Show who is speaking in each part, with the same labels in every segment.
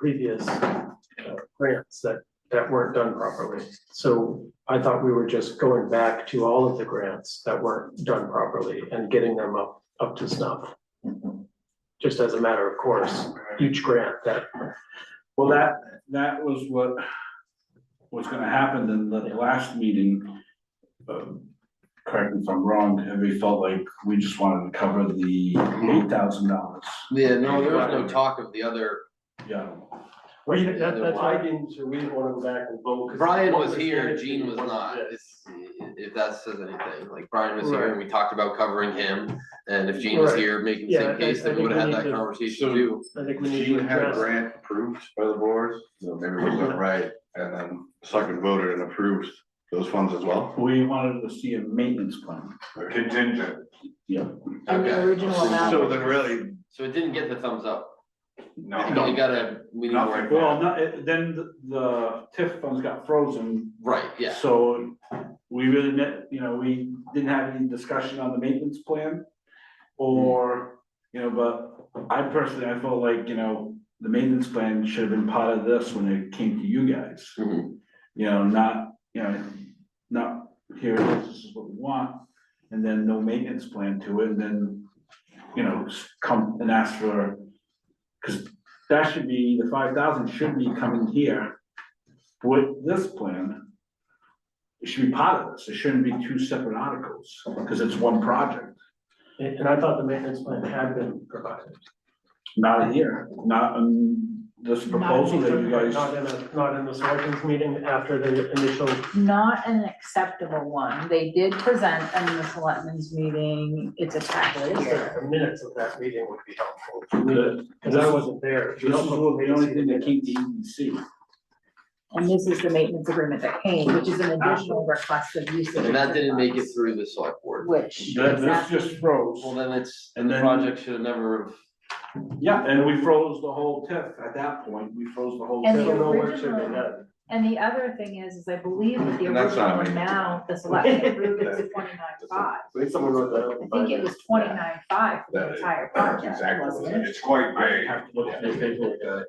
Speaker 1: previous uh, grants that, that weren't done properly. So I thought we were just going back to all of the grants that weren't done properly and getting them up, up to snuff. Just as a matter of course, each grant that,
Speaker 2: Well, that, that was what was gonna happen in the last meeting. Um, Correct me if I'm wrong, and we felt like we just wanted to cover the eight thousand dollars.
Speaker 3: Yeah, no, there was no talk of the other,
Speaker 2: Yeah,
Speaker 1: well, you- that, that's why I didn't, so we didn't want to go back and vote. 'cause
Speaker 3: Brian
Speaker 1: one
Speaker 3: was here,
Speaker 1: good,
Speaker 3: Gene was
Speaker 1: one
Speaker 3: not,
Speaker 1: bad.
Speaker 3: if, if that says anything, like Brian was here and we talked about covering him. And if Gene was
Speaker 1: Right.
Speaker 3: here making the
Speaker 1: Yeah,
Speaker 3: same
Speaker 1: I-
Speaker 3: case,
Speaker 1: I
Speaker 3: then we
Speaker 1: think we
Speaker 3: would have had
Speaker 1: need
Speaker 3: that
Speaker 1: to-
Speaker 3: conversation
Speaker 4: So-
Speaker 3: too.
Speaker 1: I think we need
Speaker 4: Gene
Speaker 1: to
Speaker 4: had a
Speaker 1: address.
Speaker 4: grant approved by the board, so maybe we went right, and then second voted and approved those funds as well.
Speaker 2: we wanted to see a maintenance plan.
Speaker 4: Contingent.
Speaker 2: Yeah.
Speaker 5: And the
Speaker 3: Okay.
Speaker 5: original amount.
Speaker 4: So then really,
Speaker 3: So it didn't get the thumbs up. It
Speaker 4: no,
Speaker 3: got a, we need
Speaker 4: Nothing.
Speaker 3: more.
Speaker 2: Well, no, it- then the- the TIF funds got frozen.
Speaker 3: Right, yeah,
Speaker 2: So we really, ne- you know, we didn't have any discussion on the maintenance plan. Or, you know, but I personally, I felt like, you know, the maintenance plan should have been part of this when it came to you guys.
Speaker 3: Mhm.
Speaker 2: You know, not, you know, not here, it is, this is what we want, and then no maintenance plan to it, and then, you know, s- come and ask for. Cause that should be, the five thousand should be coming here with this plan. It should be part of this, it shouldn't be two separate articles, cause it's one project,
Speaker 1: And and I thought the maintenance plan had been provided.
Speaker 2: not here, not, um, this proposal that you guys.
Speaker 1: Not in a, not in the selectmen's meeting after the initial
Speaker 5: Not an acceptable one. They did present in the selectmen's meeting. It's attached here.
Speaker 1: The minutes of that meeting would be helpful for me,
Speaker 2: The-
Speaker 1: because I wasn't there.
Speaker 2: This is the E only thing that came to EDC.
Speaker 5: And this is the maintenance agreement that came, which is an additional request of use of.
Speaker 3: and that didn't make it
Speaker 5: funds,
Speaker 3: through the select board.
Speaker 5: Which.
Speaker 2: That, this
Speaker 5: exactly.
Speaker 2: just froze.
Speaker 3: Well, then it's,
Speaker 2: And
Speaker 3: the
Speaker 2: then-
Speaker 3: project should have never have
Speaker 2: Yeah, and we froze the whole TIF at that point, we froze the whole.
Speaker 5: And
Speaker 1: I
Speaker 5: the
Speaker 1: don't
Speaker 2: TIF.
Speaker 1: know where it should be
Speaker 5: original-
Speaker 1: done.
Speaker 5: And the other thing is, is I believe that the
Speaker 4: And that's not
Speaker 5: original
Speaker 4: me.
Speaker 5: amount, the selectmen approved it to twenty-nine five.
Speaker 1: I think someone wrote that.
Speaker 5: I
Speaker 1: up.
Speaker 5: think it was twenty-nine five for the
Speaker 4: That is-
Speaker 5: entire
Speaker 4: that's
Speaker 5: project,
Speaker 4: exactly,
Speaker 5: wasn't it?
Speaker 4: it's quite
Speaker 2: I
Speaker 4: vague.
Speaker 2: have to look at the paperwork, uh,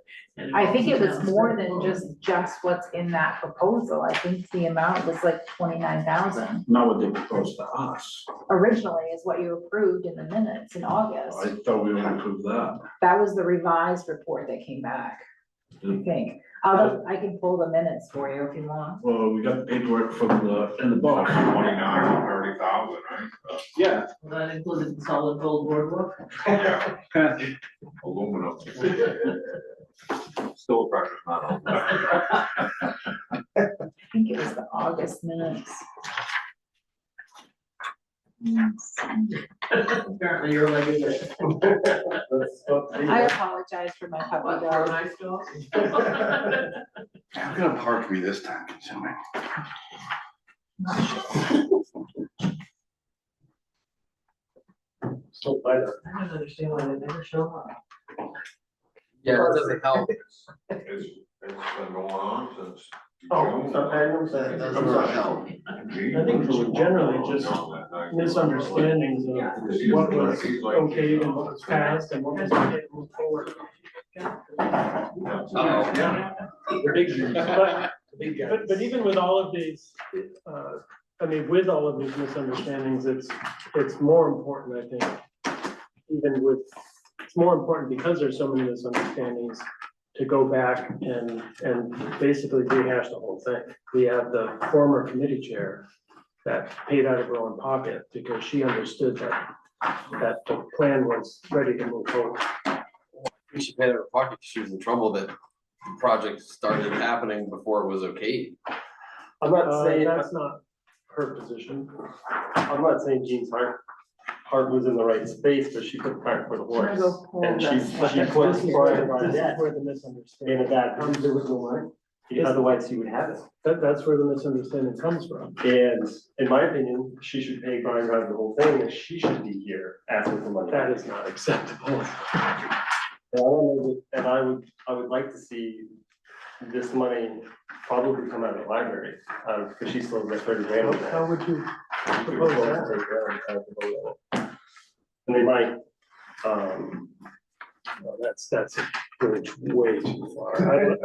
Speaker 5: I think it was more than just, just what's in that proposal. I think the amount was like twenty-nine thousand
Speaker 2: not what they proposed to us.
Speaker 5: originally is what you approved in the minutes in August.
Speaker 2: I thought we would approve that.
Speaker 5: That was the revised report that came back, I think. Although I can pull the minutes for you if you want.
Speaker 2: Well, we got the paperwork from the, in the book.
Speaker 4: Twenty-nine, thirty thousand, right?
Speaker 2: Yeah.
Speaker 6: Well, That included the solid gold boardwalk.
Speaker 4: Yeah,
Speaker 2: Well,
Speaker 4: aluminum. Still precious metal.
Speaker 5: I think it was the August minutes. Yes.
Speaker 6: Apparently your leg is it.
Speaker 1: That's what they-
Speaker 5: I apologize for my
Speaker 6: What,
Speaker 5: puppy
Speaker 6: for an
Speaker 5: dog.
Speaker 6: ice dog?
Speaker 4: How gonna park me this time, consuming?
Speaker 1: Still by that.
Speaker 6: I don't understand why they never show up.
Speaker 3: Yeah, it doesn't help.
Speaker 4: It's, it's been going on since.
Speaker 1: Oh,
Speaker 4: June.
Speaker 1: okay, I'm sorry.
Speaker 3: It doesn't help.
Speaker 1: I think it was generally just Misunderstandings of what was okay and what was passed and what was getting moved forward.
Speaker 3: Uh-oh.
Speaker 1: But, but, but even with all of these, uh, I mean, with all of these misunderstandings, it's, it's more important, I think. Even with, it's more important because there's so many misunderstandings to go back and, and basically rehash the whole thing. We have the former committee chair that paid out of her own pocket because she understood that, that the plan was ready to move forward.
Speaker 3: We should pay her pocket, 'cause she was in trouble that the project started happening before it was okay.
Speaker 7: I'm not
Speaker 1: Uh,
Speaker 7: saying,
Speaker 1: That's not her position.
Speaker 7: I'm not saying Jean's heart, heart was in the right space, but she put cart for the
Speaker 5: Should I
Speaker 7: horse.
Speaker 5: go pull
Speaker 7: And
Speaker 5: the-
Speaker 7: she's, she
Speaker 1: This
Speaker 7: put
Speaker 1: is
Speaker 7: Brian
Speaker 1: where- this is
Speaker 7: Barnett
Speaker 1: where the
Speaker 7: in a
Speaker 1: misunderstanding,
Speaker 7: bad original line.
Speaker 1: Yes.
Speaker 7: Otherwise, he would have it.
Speaker 1: that, that's where the misunderstanding comes from.
Speaker 7: And in my opinion, she should pay Brian Rod the whole thing, and she should be here asking for money.
Speaker 1: That is not acceptable.
Speaker 7: And I don't know that- And I would, I would like to see this money probably come out of the library, um, because she still has thirty grand.
Speaker 1: How
Speaker 7: on that.
Speaker 1: how would you propose that?
Speaker 7: And they might, um,
Speaker 1: No, That's, that's, stretch way too far. I don't-